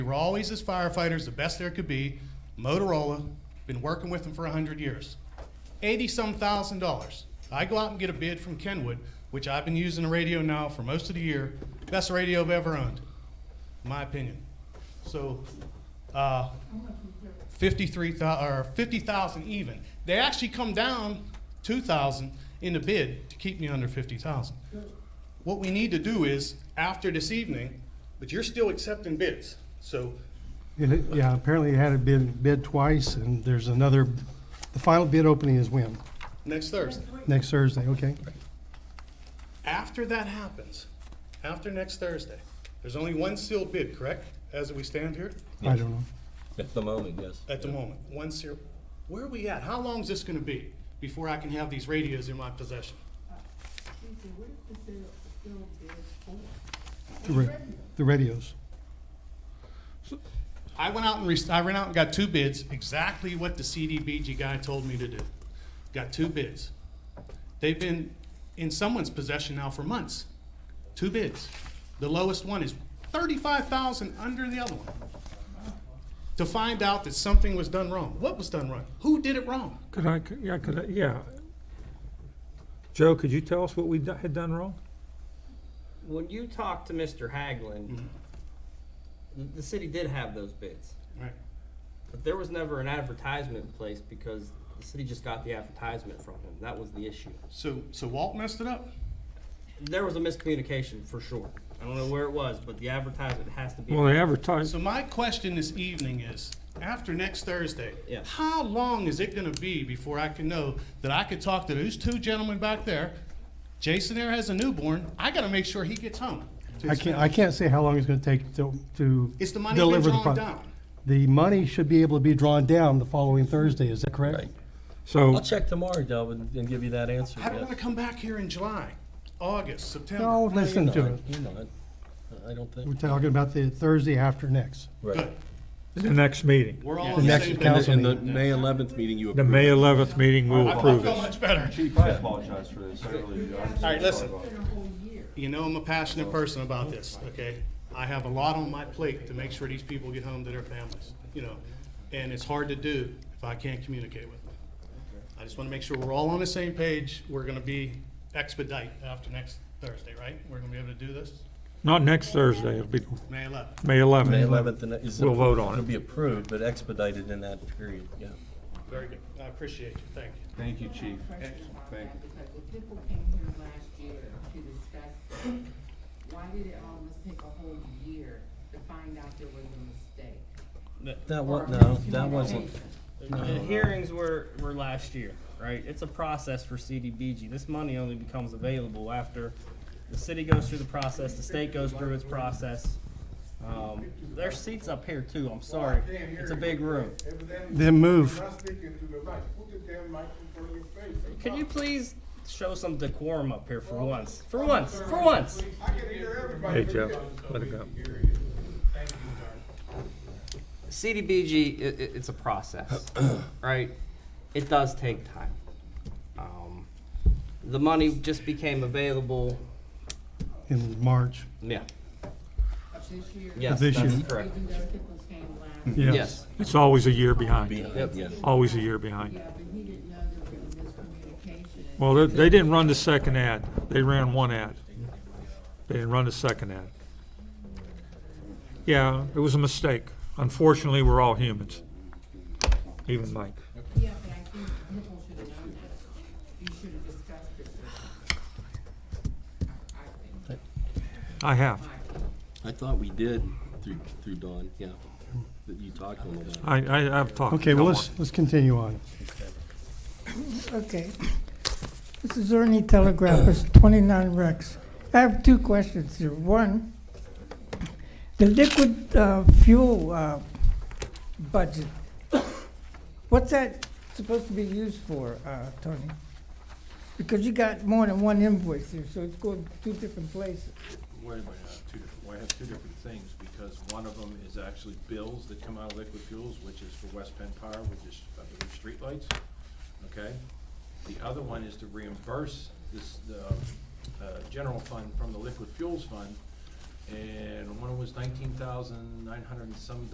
We were always, as firefighters, the best there could be. Motorola, been working with them for 100 years. 80-some thousand dollars. I go out and get a bid from Kenwood, which I've been using the radio now for most of the year. Best radio I've ever owned, in my opinion. So, uh, 53,000, or 50,000 even. They actually come down 2,000 in the bid to keep me under 50,000. What we need to do is, after this evening, but you're still accepting bids, so And it- Yeah, apparently it had a bid, bid twice, and there's another, the final bid opening is when? next Thursday. Next Thursday, okay? After that happens, after next Thursday, there's only one sealed bid, correct, as we stand here I don't know. At the moment, yes. at the moment? One sealed. Where are we at? How long is this going to be before I can have these radios in my possession? Lisa, what is the sale, sale bid for? The ra- The radios. I went out and re- I went out and got two bids, exactly what the CDBG guy told me to do. Got two bids. They've been in someone's possession now for months. Two bids. The lowest one is thirty-five thousand under the other one. To find out that something was done wrong. What was done wrong? Who did it wrong? Could I, could- yeah, could I, yeah. Joe, could you tell us what we do- had done wrong? When you talked to Mr. Haglund, the, the city did have those bids, Right. but there was never an advertisement placed because the city just got the advertisement from him. That was the issue. So, so Walt messed it up? There was a miscommunication for sure. I don't know where it was, but the advertisement has to be. Well, the advertise, So my question this evening is, after next Thursday, Yeah. how long is it gonna be before I can know that I could talk to those two gentlemen back there? Jason there has a newborn, I gotta make sure he gets home. I can't, I can't say how long it's gonna take to, to. Is the money been deliver drawn pro- down? The money should be able to be drawn down the following Thursday, is that correct? Right. so, I'll check tomorrow, Delvin, and give you that answer. I don't yes. wanna come back here in July, August, September. No, No, listen you're to not. it. You're not. I don't We're think. talking about the Thursday after next. Right. Good, the next meeting, we're all The on the next same page. council- In the May 11th meeting, you the approved. May 11th meeting, we'll I I approve feel it. much better. Chief, I apologize for this, I really do. I'm All right, listen. For the whole year. You know I'm a passionate person about this, okay? I have a lot on my plate to make sure these people get home to their families, you know? And it's hard to do if I can't communicate with them. I just want to make sure we're all on the same page. We're going to be expedite after next Thursday, right? We're going to be able to do this, Not next Thursday, it'll be May 11th. May May 11th. 11th and is. We'll vote on It'll it. be approved, but expedited in that period, yeah. Very good. I appreciate you. Thank you. Thank you, chief. Thank you. Because if people came here last year to discuss, it, why did it almost take a whole year to find out there was a mistake? That Or was, a no, that wasn't, miscommunication? The hearings were, were last year, right? It's a process for CDBG. This money only becomes available after the city goes through the process, the state goes through its process. Um, there's seats up here too, I'm sorry. It's a big room. Then move. Can you please show some decorum up here for once? For once, for once. Hey, Joe, let it go. CDBG, i i it's a process, right? It does take time. Um, the money just became available. In March. Yeah. This year, Yes, This that's year. correct. even though people came last Yes. It's always a year behind, behind, yeah. always a year behind. Yeah, uh, but he didn't know there was a miscommunication. Well, they, they didn't run the second ad, they ran one ad. They didn't run the second ad. Yeah, it was a mistake. Unfortunately, we're all humans, even Mike. Yeah, but I think people should have known that. You should have discussed it. I think. I have. I thought we did through, through Dawn, yeah. That you talked a little about. it. I, I, I've talked. Okay, well, Don't let's, worry. let's continue on. Okay. This is Ernie Telegraph, it's 29 Rex. I have two questions here. One, the liquid uh, fuel uh, budget, what's that supposed to be used for, uh, Tony? Because you got more than one invoice here, so it's going two different places. Wait a minute, I have two different, well, I have two different things, because one of them is actually bills that come out of liquid fuels, which is for West Penn Power, which is, I believe, streetlights, okay? The other one is to reimburse this, the, uh, general fund from the liquid fuels fund, and one was nineteen thousand nine hundred and some